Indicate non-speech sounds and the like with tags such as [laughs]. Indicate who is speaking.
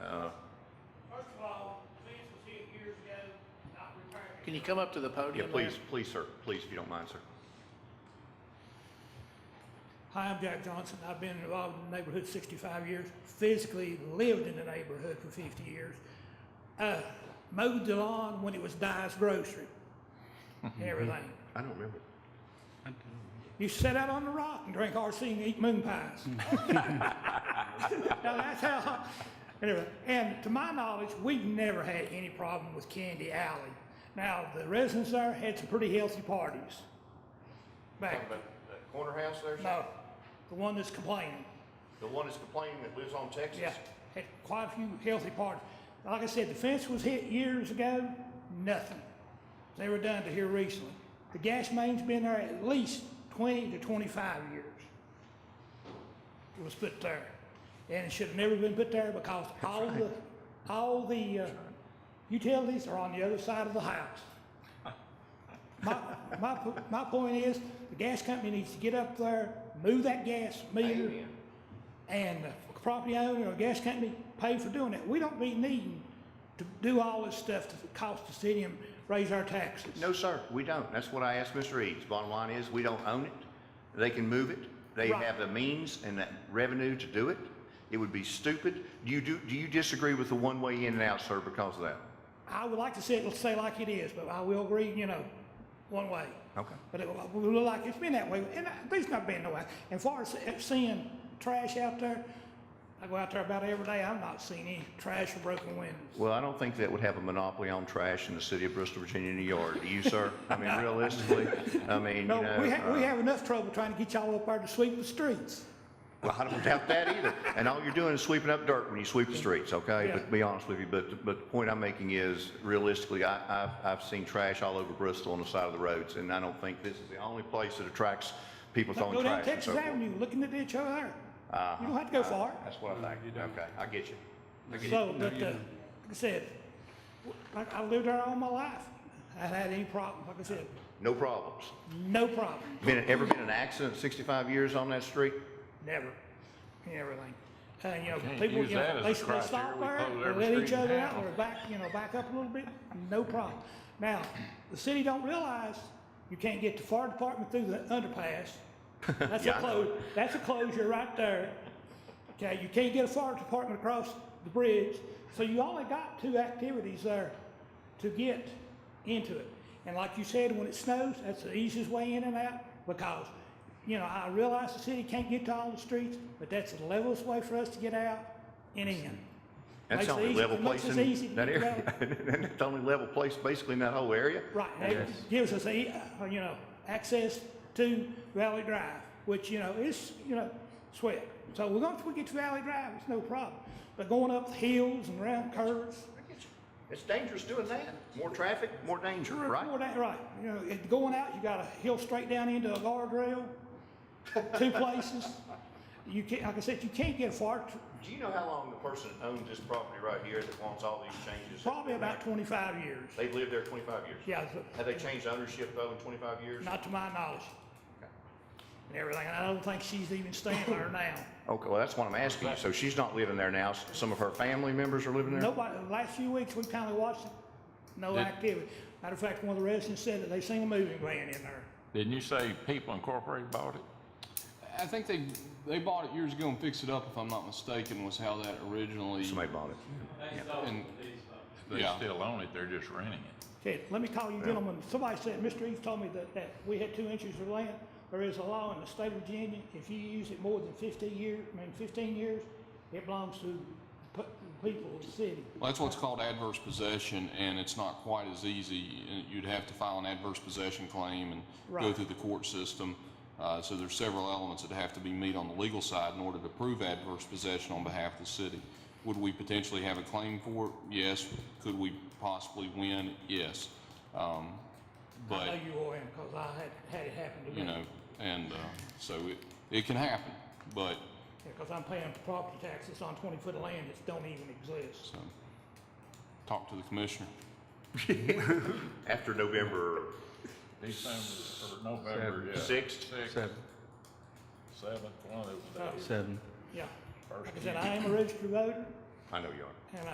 Speaker 1: Can you come up to the
Speaker 2: Yeah,
Speaker 1: podium?
Speaker 2: please,
Speaker 1: there?
Speaker 2: please, sir, please, if you don't mind, sir.
Speaker 3: Hi, I'm Jack Johnson. I've been involved in the neighborhood 65 years, physically lived in the neighborhood for 50 years. Uh, mowed the lawn when it was Dye's Grocery and everything.
Speaker 2: I don't remember.
Speaker 3: You sit out on the rock and drink RC and eat moon pies. now that's how. Anyway, and to my knowledge, we've never had any problem with Candy Alley. Now the residents there had some pretty healthy parties. Back
Speaker 2: that corner house there,
Speaker 3: no, the one that's complaining.
Speaker 2: The one that's complaining that lives on Texas?
Speaker 3: Yeah, had quite a few healthy parties. Like I said, the fence was hit years ago, nothing. They were done to here recently. The gas main's been there at least twenty to twenty-five years. It was put there. And it should have never been put there because all the, all the uh, utilities are on the other side of the house. My, my, po- my point is, the gas company needs to get up there, move that gas meter and the property owner or gas company pay for doing that. We don't be needing to do all this stuff to cost the city and raise our taxes.
Speaker 2: No, sir, we don't. That's what I asked Mr. Eads. Bottom line is, we don't own it. They can move it. They
Speaker 3: Right.
Speaker 2: have the means and the revenue to do it. It would be stupid. Do you, do, do you disagree with the one-way in and out, sir, because of that?
Speaker 3: I would like to see it, say like it is, but I will agree, you know, one way.
Speaker 2: Okay.
Speaker 3: But it will look like it's been that way, and I- there's not been no way. And far as seeing trash out there, I go out there about every day, I've not seen any trash or broken windows.
Speaker 2: Well, I don't think that would have a monopoly on trash in the city of Bristol, Virginia, New York. Do you, sir? I
Speaker 3: [laughs]
Speaker 2: mean, realistically, I mean, you
Speaker 3: No,
Speaker 2: know.
Speaker 3: we have, we
Speaker 2: uh,
Speaker 3: have enough trouble trying to get y'all up there to sweep the streets.
Speaker 2: Well, I don't doubt that either. And all you're doing is sweeping up dirt when you sweep the streets, okay?
Speaker 3: Yeah.
Speaker 2: But to be honest with you, but, but the point I'm making is realistically, I, I've, I've seen trash all over Bristol on the side of the roads. And I don't think this is the only place that attracts people
Speaker 3: Now,
Speaker 2: throwing
Speaker 3: Go down
Speaker 2: trash and so
Speaker 3: Texas
Speaker 2: forth.
Speaker 3: Avenue, look in the ditch over there.
Speaker 4: Uh-huh.
Speaker 3: You don't have to go far.
Speaker 2: That's what I think. Okay, I get you.
Speaker 3: So, but, uh, like I said, like, I lived there all my life. I haven't had any problem, like I said,
Speaker 2: No problems.
Speaker 3: no problem,
Speaker 2: Been, ever been an accident in 65 years on that street?
Speaker 3: never, and everything. Uh, you know,
Speaker 4: Can't
Speaker 3: people,
Speaker 4: use
Speaker 3: you know,
Speaker 4: that as a
Speaker 3: they, they
Speaker 4: criteria.
Speaker 3: stop
Speaker 4: We
Speaker 3: there,
Speaker 4: close
Speaker 3: they
Speaker 4: every
Speaker 3: let each
Speaker 4: street in
Speaker 3: other
Speaker 4: town.
Speaker 3: out, or back, you know, back up a little bit, no problem. Now, the city don't realize you can't get the fire department through the underpass.
Speaker 2: [laughs]
Speaker 3: That's a
Speaker 2: Yeah, I know.
Speaker 3: close, that's a closure right there. Okay, you can't get a fire department across the bridge, so you only got two activities there to get into it. And like you said, when it snows, that's the easiest way in and out, because, you know, I realize the city can't get to all the streets, but that's the levelest way for us to get out and in. Makes
Speaker 2: That's the
Speaker 3: it
Speaker 2: only
Speaker 3: easy-
Speaker 2: level
Speaker 3: it
Speaker 2: place
Speaker 3: makes us easy
Speaker 2: in
Speaker 3: to
Speaker 2: that
Speaker 3: get
Speaker 2: area.
Speaker 3: out.
Speaker 2: [laughs] And it's the only level place basically in that whole area.
Speaker 3: Right, and it gives us, a, uh, you know, access to Valley Drive, which, you know, is, you know, sweat. So we're going, we get to Valley Drive, it's no problem. But going up the hills and around curves,
Speaker 2: It's dangerous doing that. More traffic, more danger, right?
Speaker 3: Well, that- Right, you know, it- going out, you gotta hill straight down into a guardrail, two places. You can't, like I said, you can't get far, t-
Speaker 2: Do you know how long the person that owns this property right here that wants all these changes?
Speaker 3: probably about twenty-five years.
Speaker 2: They've lived there twenty-five years?
Speaker 3: Yeah, it's-
Speaker 2: Have they changed ownership though in twenty-five years?
Speaker 3: not to my knowledge. And everything, and I don't think she's even staying there now.
Speaker 2: Okay, well, that's what I'm asking you. So she's not living there now. S- Some of her family members are living there?
Speaker 3: Nobody, the last few weeks, we kinda watched it, no activity. Matter of fact, one of the residents said that they seen a moving van in there.
Speaker 4: Didn't you say People Incorporated bought it?
Speaker 5: I think they they bought it years ago and fixed it up, if I'm not mistaken, was how that originally.
Speaker 2: Somebody bought it.
Speaker 5: and-
Speaker 4: They
Speaker 5: Yeah.
Speaker 4: still own it, they're just renting it.
Speaker 3: Okay, let me call you gentlemen, somebody said, Mr. Eaves told me that, that we had two inches of land. There is a law in the state of Virginia, if you use it more than fifteen years, I mean fifteen years, it belongs to the pe- people of the city.
Speaker 5: Well, that's what's called adverse possession, and it's not quite as easy. And You'd have to file an adverse possession claim and go
Speaker 3: Right.
Speaker 5: through the court system. Uh, so there's several elements that have to be met on the legal side in order to prove adverse possession on behalf of the city. Would we potentially have a claim for it? Yes. Could we possibly win? Yes. Um, but
Speaker 3: I know you are in, cause I had, had it happen to me.
Speaker 5: you know, and uh, so it, it can happen, but
Speaker 3: Yeah, cause I'm paying property taxes on twenty foot of land that don't even exist.
Speaker 5: so um, talk to the commissioner.
Speaker 3: [laughs]
Speaker 2: After November
Speaker 4: December, or November, yeah.
Speaker 2: sixth?
Speaker 4: Sixth,
Speaker 6: Seven.
Speaker 4: seventh, one of those days.
Speaker 3: So,
Speaker 6: Seven.
Speaker 3: yeah,
Speaker 4: First
Speaker 3: like I said, I am a registered voter,
Speaker 2: I know you are.
Speaker 3: and